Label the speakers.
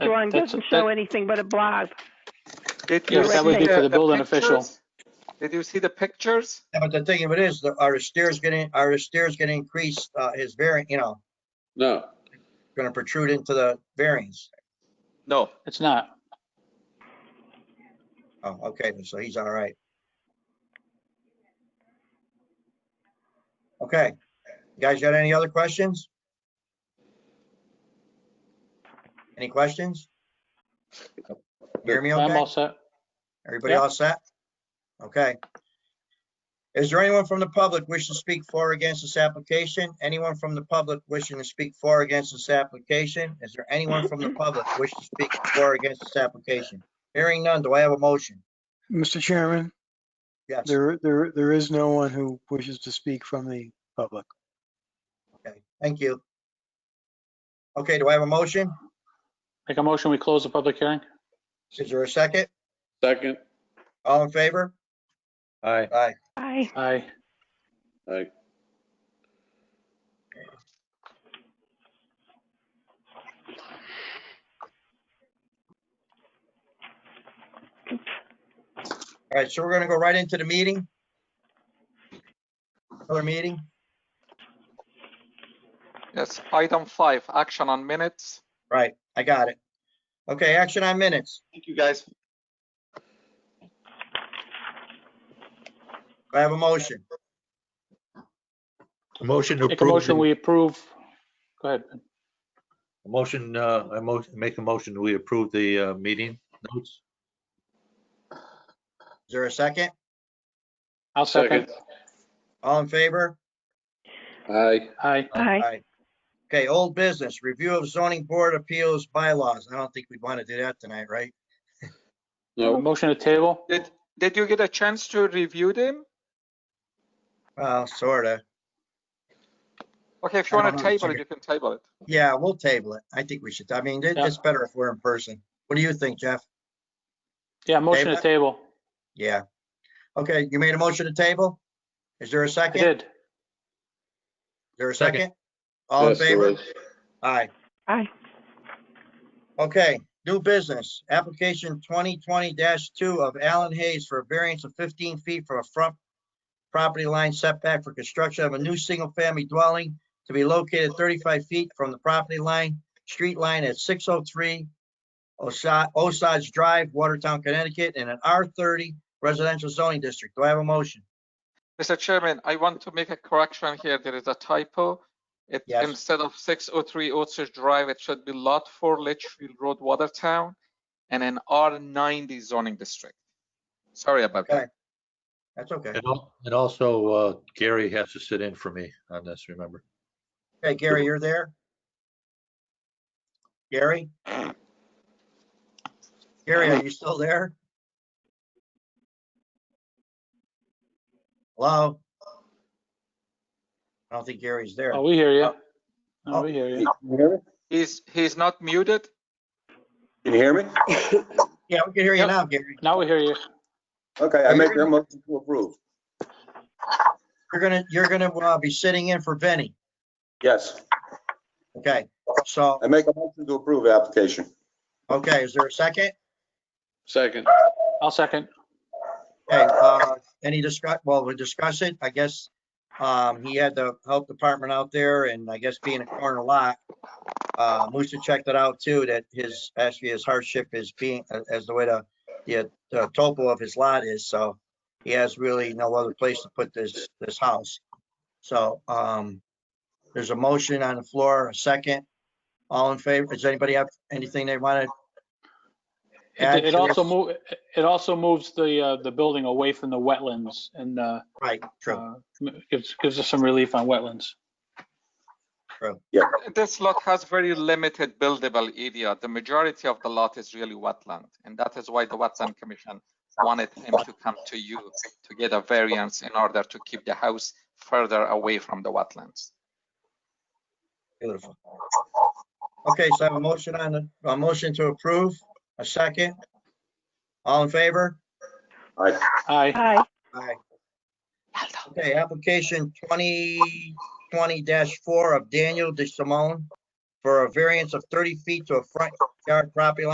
Speaker 1: one
Speaker 2: that's-
Speaker 1: doesn't show
Speaker 2: that-
Speaker 1: anything but a blog.
Speaker 3: Did you
Speaker 2: Yes, that would
Speaker 3: see
Speaker 2: be for the building
Speaker 3: pictures?
Speaker 2: official.
Speaker 3: Did you see the pictures?
Speaker 4: Yeah, But the thing of it is, the- our steer's getting, our steer's gonna increase, uh, his variant, you know,
Speaker 5: No,
Speaker 4: gonna protrude into the variance.
Speaker 3: No,
Speaker 2: It's not.
Speaker 4: Oh, okay, so he's all right. Okay, you guys got any other questions? Any questions? Hear me
Speaker 2: I'm
Speaker 4: okay?
Speaker 2: all set.
Speaker 4: Everybody
Speaker 2: Yep.
Speaker 4: all set? Okay. Is there anyone from the public wishing to speak for or against this application? Anyone from the public wishing to speak for or against this application? Is there anyone from the public wishing to speak for or against this application? Hearing none, do I have a motion?
Speaker 6: Mr. Chairman,
Speaker 4: Yes.
Speaker 6: there, there, there is no one who wishes to speak from the public.
Speaker 4: Okay, thank you. Okay, do I have a motion?
Speaker 2: Make a motion, we close the public hearing?
Speaker 4: Is there a second?
Speaker 5: second,
Speaker 4: All in favor?
Speaker 7: Aye.
Speaker 4: Aye.
Speaker 1: Aye.
Speaker 2: Aye.
Speaker 5: like,
Speaker 4: All right, so we're gonna go right into the meeting. Other meeting?
Speaker 3: yes, item five, action on minutes.
Speaker 4: Right, I got it. Okay, action on minutes.
Speaker 3: Thank you, guys.
Speaker 4: Do I have a motion?
Speaker 7: A Motion to
Speaker 2: Make a
Speaker 7: approve,
Speaker 2: motion,
Speaker 7: the-
Speaker 2: we approve. Go ahead.
Speaker 7: a motion, uh, I mo- make a motion, we approve the, uh, meeting notes.
Speaker 4: Is there a second?
Speaker 2: I'll second.
Speaker 5: Second.
Speaker 4: All in favor?
Speaker 5: aye,
Speaker 2: Aye.
Speaker 1: Aye.
Speaker 4: Aye. Okay, old business, review of zoning board appeals bylaws. I don't think we'd want to do that tonight, right?
Speaker 5: no,
Speaker 2: Motion to table?
Speaker 3: Did, did you get a chance to review them?
Speaker 4: Well, sorta.
Speaker 3: Okay, if you
Speaker 4: I
Speaker 3: want
Speaker 4: don't
Speaker 3: to
Speaker 4: know,
Speaker 3: table it,
Speaker 4: check
Speaker 3: you can table it.
Speaker 4: Yeah, we'll table it. I think we should. I mean, it-
Speaker 2: Yeah.
Speaker 4: it's better if we're in person. What do you think, Jeff?
Speaker 2: Yeah, motion to
Speaker 4: Table.
Speaker 2: table.
Speaker 4: Yeah. Okay, you made a motion to table? Is there a
Speaker 2: I
Speaker 4: second? Is
Speaker 2: did.
Speaker 4: there a
Speaker 7: Second.
Speaker 4: second? All in
Speaker 5: Yes, there
Speaker 4: favor?
Speaker 5: is.
Speaker 4: Aye.
Speaker 1: Aye.
Speaker 4: Okay, new business, application twenty twenty two of Alan Hayes for a variance of fifteen feet from a front property line setback for construction of a new single-family dwelling to be located thirty-five feet from the property line, street line at six oh three Osage Drive, Watertown, Connecticut, in an R thirty residential zoning district. Do I have a motion?
Speaker 3: Mr. Chairman, I want to make a correction here. There is a typo. It,
Speaker 4: Yes.
Speaker 3: instead of 603 Otis Drive, it should be Lot 4 Litchfield Road, Watertown, and an R90 zoning district. Sorry about that.
Speaker 4: Okay. That's okay.
Speaker 7: And al- and also, uh, Gary has to sit in for me on this, remember?
Speaker 4: Okay, Gary, you're there? Gary? Gary, are you still there? Hello? I don't think Gary's there.
Speaker 2: Oh, we hear you. Oh, we hear you.
Speaker 3: He's, he's not muted.
Speaker 8: Can you hear me?
Speaker 4: Yeah, we can hear you
Speaker 2: Yep.
Speaker 4: now, Gary.
Speaker 2: Now we hear you.
Speaker 8: Okay, I make a motion to approve.
Speaker 4: You're gonna, you're gonna uh, be sitting in for Benny.
Speaker 8: Yes,
Speaker 4: Okay, so,
Speaker 8: I make a motion to approve application.
Speaker 4: okay, is there a second?
Speaker 5: second,
Speaker 2: I'll second.
Speaker 4: Okay, uh, any discuss, well, we discuss it, I guess. Um, he had the health department out there and I guess being a corner lot. Uh, Musa checked it out too, that his, actually his hardship is being, uh, as the way the, the the topo of his lot is, so. He has really no other place to put this, this house. So, um, there's a motion on the floor, a second. All in favor, does anybody have anything they wanted?
Speaker 2: It it also move, it also moves the, uh, the building away from the wetlands and, uh,
Speaker 4: Right, true,
Speaker 2: uh, gives, gives us some relief on wetlands.
Speaker 3: This lot has very limited buildable area. The majority of the lot is really wetland, and that is why the Wetland Commission wanted him to come to you to get a variance in order to keep the house further away from the wetlands.
Speaker 4: beautiful. Okay, so I have a motion on the, a motion to approve, a second. All in favor?
Speaker 8: Aye.
Speaker 2: Aye.
Speaker 1: Aye.
Speaker 4: Aye. Okay, application twenty twenty four of Daniel De Simone for a variance of 30 feet to a front yard property line